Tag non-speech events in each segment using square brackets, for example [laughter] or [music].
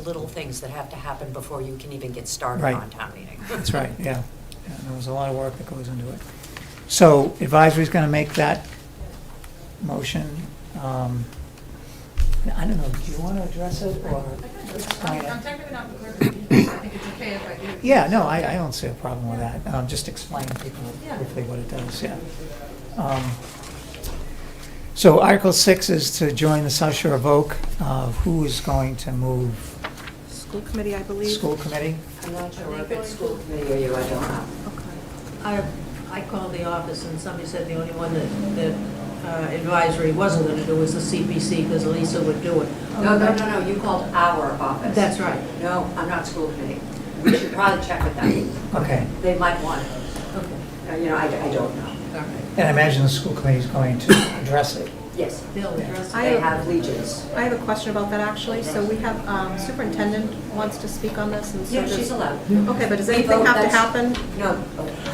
little things that have to happen before you can even get started Right. on town meeting. That's right, yeah. Yeah, There was a lot of work that goes into it. So advisory's going to make that motion. Um, I don't know, do you want to address it or? I'm I'm technically not the clerk of the meeting, I think it's okay if I do. Yeah, no, I, I don't see a problem with that. Um, Just explain to people quickly what it does, yeah. Um, So Article 6 is to join the South Shore of Oak. Uh, Who is going to move? School committee, I believe. School committee? I'm not sure if it's school committee or you, I don't know. Okay. I, I called the office and somebody said the only one that, that uh, advisory wasn't gonna do was the CPC because Lisa would do it. Oh, No, no, no, no, you called our office. That's right. No, I'm not school committee. We should probably check with them. Okay. They might want it. Okay. Uh, You know, I, I don't know. And I imagine the school committee is going to address it. Yes, Bill, address. I- they have legions. I have a question about that, actually. So we have, um, superintendent wants to speak on this, and so Yeah, does- she's Mm. allowed. Okay, but does anything vote, have to that's- happen? No,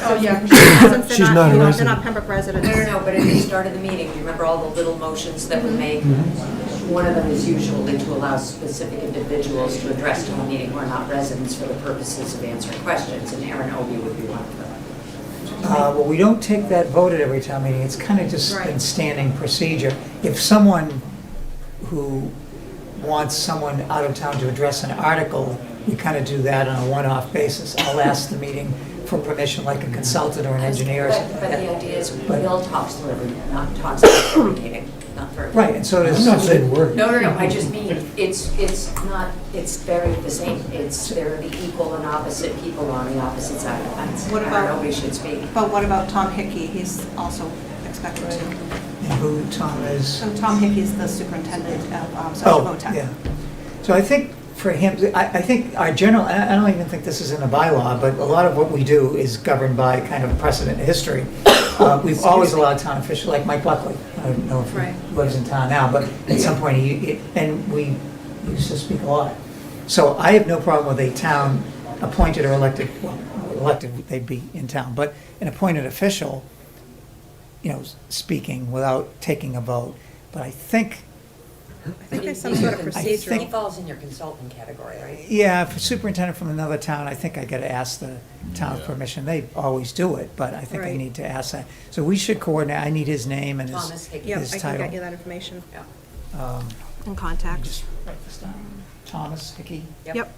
Oh, yeah. Since She's they're not not, a you know, they're resident. not Pembroke residents. No, no, no, but at the start of the meeting, you remember all the little motions that we Mm-hmm. make? one of them is usually to allow specific individuals to address town meeting who are not residents for the purposes of answering questions, and Aaron Obie would be one of them. Uh, Well, we don't take that vote at every town meeting, it's kind of just been Right. standing procedure. If someone who wants someone out of town to address an article, we kind of do that on a one-off basis. I'll ask the meeting for permission, like a consultant or an engineer. or But something but like the that. idea is, But- Bill talks through every, not talks through every meeting, not for. Right, and so does. I'm not saying we're. No, no, no, I just mean, it's, it's not, it's very the same, it's, they're the equal and opposite people on the opposite side of the fence. What I don't about- know, we should speak. But what about Tom Hickey? He's also expected to. And who Tom is. So Tom Hickey is the superintendent of um, Social Oh, Votek. yeah. So I think for him, I, I think our general, I I don't even think this is in the bylaw, but a lot of what we do is governed by kind of precedent history. Uh, We've always allowed town officials, like Mike Buckley, I don't know if Right. he lives in town now, but at some point, he, he- and we used to speak a lot. So I have no problem with a town appointed or elected, well, elected, they'd be in town, but an appointed official, you know, speaking without taking a vote. But I think I think there's some sort of I procedural. He falls in your consultant category, right? Yeah, if a superintendent from another town, I think I gotta ask the town permission. They always do it, but I think I Right. need to ask that. So we should coordinate, I need his name and Thomas his, Hickey. Yep, his I can get you title. that information Yeah. Um, and let me contact. just write this down. Thomas Hickey. Yep.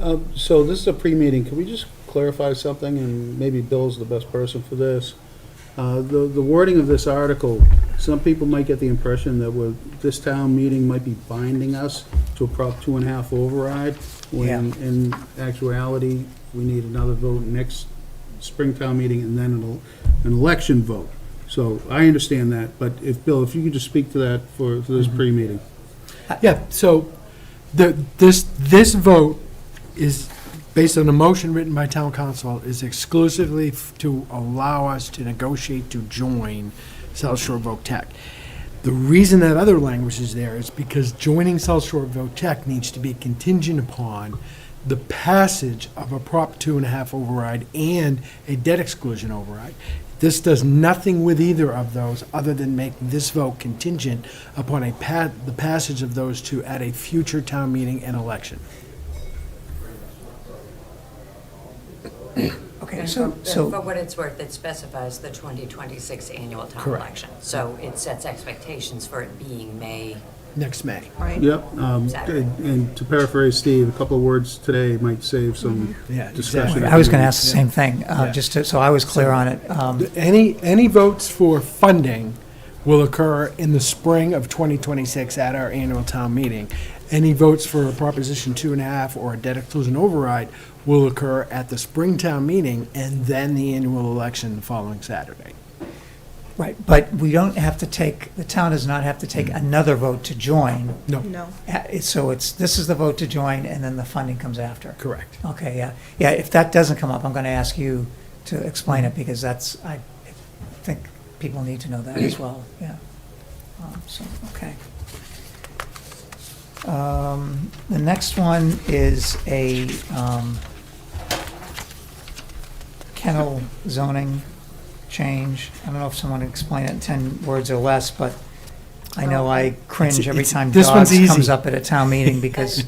Um, So this is a pre-meeting, can we just clarify something, and maybe Bill's the best person for this? Uh, The the wording of this article, some people might get the impression that we're, this town meeting might be binding us to a Prop two and a half override, when in actuality, we need another vote next spring town meeting, and then an el- an election vote. So I understand that, but if, Bill, if you could just speak to that for for this pre-meeting. Yeah, so the, this, this vote is, based on a motion written by town council, is exclusively f- to allow us to negotiate to join South Shore VOTEC. The reason that other language is there is because joining South Shore VOTEC needs to be contingent upon the passage of a Prop two and a half override and a debt exclusion override. This does nothing with either of those other than make this vote contingent upon a pa- the passage of those two at a future town meeting and election. Okay, And so, for- For so, what it's worth, it specifies the 2026 annual town Correct. election. So it sets expectations for it being May. Next May. Right. Yep, um, Saturday. and to paraphrase Steve, a couple of words today might save some Yeah, discussion. exactly. I was gonna ask the same thing, uh, Yeah. just to, so I was clear on it. Um, Any, any votes for funding will occur in the spring of 2026 at our annual town meeting. Any votes for a Proposition Two and a Half or a debt exclusion override will occur at the spring town meeting and then the annual election the following Saturday. Right, but we don't have to take, the town does not have to take another vote to join. Mm-hmm. No, No. Uh, it's- So it's, this is the vote to join, and then the funding comes after. correct. Okay, yeah, yeah, if that doesn't come up, I'm gonna ask you to explain Mm-hmm. it, because that's, I think people need to know that as well, [clears throat] yeah. Um, So, okay. Um, The next one is a um, kennel zoning change. I don't know if someone can explain it in 10 words or less, but I know I cringe every It's- e- time this one's dogs comes easy. up at a town meeting because